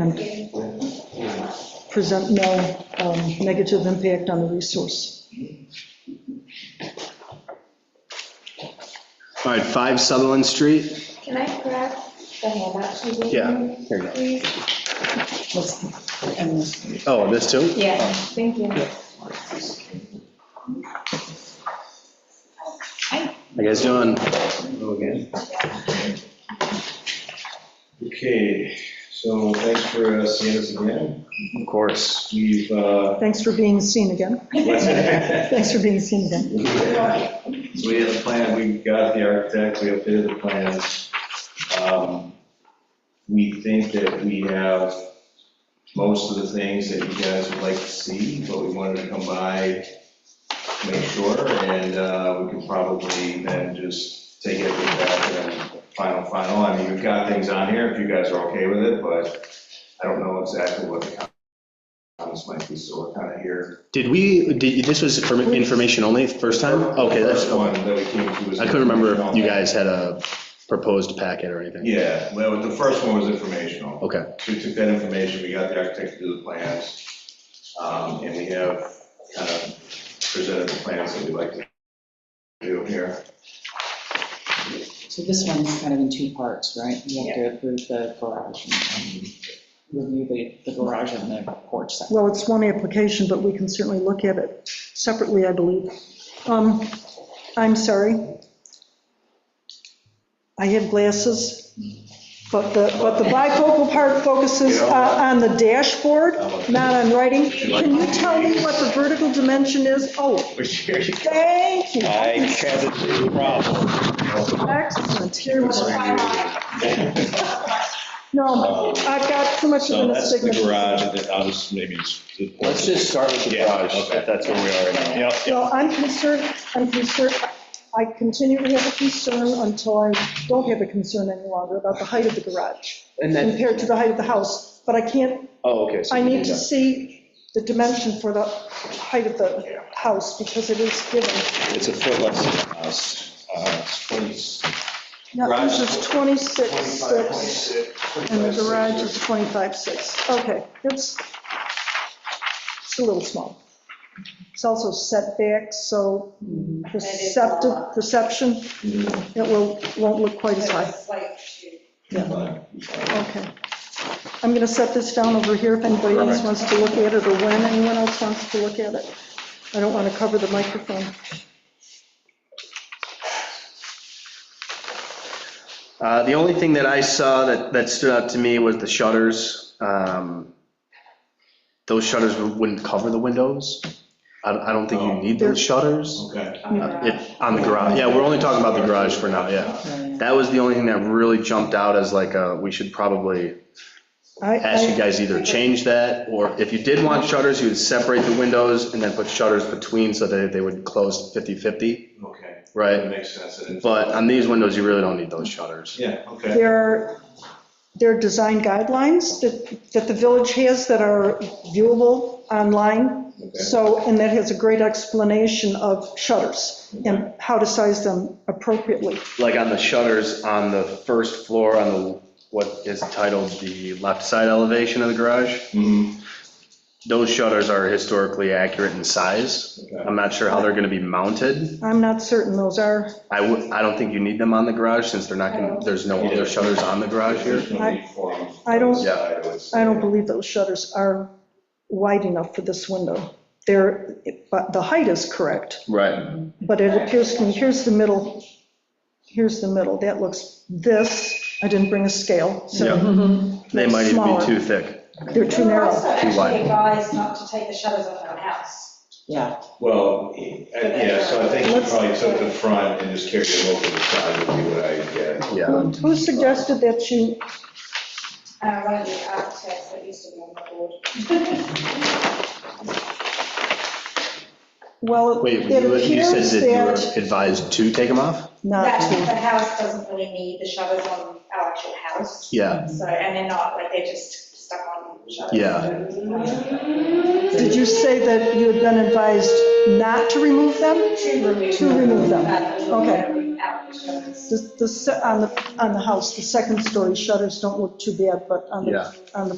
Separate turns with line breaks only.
and present no um, negative impact on the resource.
All right, 5 Sutherland Street?
Can I grab the handout she gave
Yeah,
you,
here you go.
please?
Oh, this too?
Yeah, thank you.
How you guys doing?
Hello again. Okay, so thanks for uh, seeing us again.
Of course.
We've, uh,
Thanks for being seen again.
so
Thanks for being seen again.
we have the plan, we got the architect, we updated the plans. Um, We think that we have most of the things that you guys would like to see, but we wanted to come by, make sure, and uh, we can probably then just take everything back and final, final. I mean, we've got things on here, if you guys are okay with it, but I don't know exactly what the comments might be, so we're kind of here.
Did we, did, this was for information only, first time? Okay, that's,
First one that we came to was.
I couldn't remember if you guys had a proposed packet or anything.
Yeah, well, the first one was informational.
Okay,
So we took that information, we got the architect to do the plans, um, and we have kind of presented the plans that we'd like to do here.
So this one's kind of in two parts, right? You have to approve the garage and review the, the garage and the porch section.
Well, it's one application, but we can certainly look at it separately, I believe. Um, I'm sorry. I have glasses, but the, but the bifocal part focuses uh, on the dashboard, not on writing. Can you tell me what the vertical dimension is? Oh,
Which here you go.
thank you.
I had a problem.
Excellent. Here we go. No, I've got too much of
So
an
that's the
astigmatism.
garage, and then I'll just maybe. it's-
Let's just start with the
Yeah,
garage,
okay.
if that's where we are right now.
Yep, yep.
No, I'm concerned, I'm concerned, I continue to have a concern until I don't have a concern any longer about the height of the garage
And then,
compared to the height of the house, but I can't,
oh, okay. so
I
we
need
did
to
that.
see the dimension for the height of the house because it is given.
It's a foot less than a house. Uh, it's 20
Now, this is 26.6 and the
25.6,
garage is 25.6. Okay, it's, it's a little small. It's also setback, so perceptive, perception, it will, won't look quite as high. Okay. I'm going to set this down over here if anybody else wants to look at it or when anyone else wants to look at it. I don't want to cover the microphone.
Uh, The only thing that I saw that, that stood out to me was the shutters. Um, Those shutters wouldn't cover the windows. I, I don't think you
Oh.
need those shutters
Okay.
Uh, it- on the garage. Yeah, we're only talking about the garage for now, yeah. That was the only thing that really jumped out as like, uh, we should probably
I-
ask you
I-
guys either change that, or if you did want shutters, you would separate the windows and then put shutters between so that they would close 50/50,
Okay, that
right?
makes sense. and-
But on these windows, you really don't need those shutters.
Yeah, okay.
There are, there are design guidelines that, that the village has that are viewable online.
okay.
So, and that has a great explanation of shutters and how to size them appropriately.
Like on the shutters on the first floor, on the, what is titled the left side elevation of the garage,
Mhm,
those shutters are historically accurate in size.
okay.
I'm not sure how they're gonna be mounted.
I'm not certain those are,
I would, I don't think you need them on the garage since they're not gonna, there's no other shutters on the garage here.
There's no uniform
I don't-
side, I would say.
I don't believe those shutters are wide enough for this window. They're, but the height is correct,
Right.
but it appears to me, here's the middle, here's the middle, that looks this, I didn't bring a scale, so
They might even
Smaller.
be too thick.
they're too
We're
narrow.
also
wide.
actually advised not to take the shutters off our house.
Yeah,
Well, I- yeah, so I think she probably took the front and just carried it over the side would be what I get.
Yeah.
Who suggested that you,
Uh, one of the architects that used to be on the board.
well,
Wait,
it
you you said
appears
that you
that,
were advised to take them off?
not
That,
to,
the house doesn't really need the shutters on our actual house.
Yeah.
So, and they're not, like, they're just stuck on shutters.
Yeah.
did you say that you had been advised not to remove them?
To remove.
To remove them. Okay.
Without the shutters.
The, the, se- on the, on the house, the second story shutters don't look too bad, but on
Yeah.
the, on the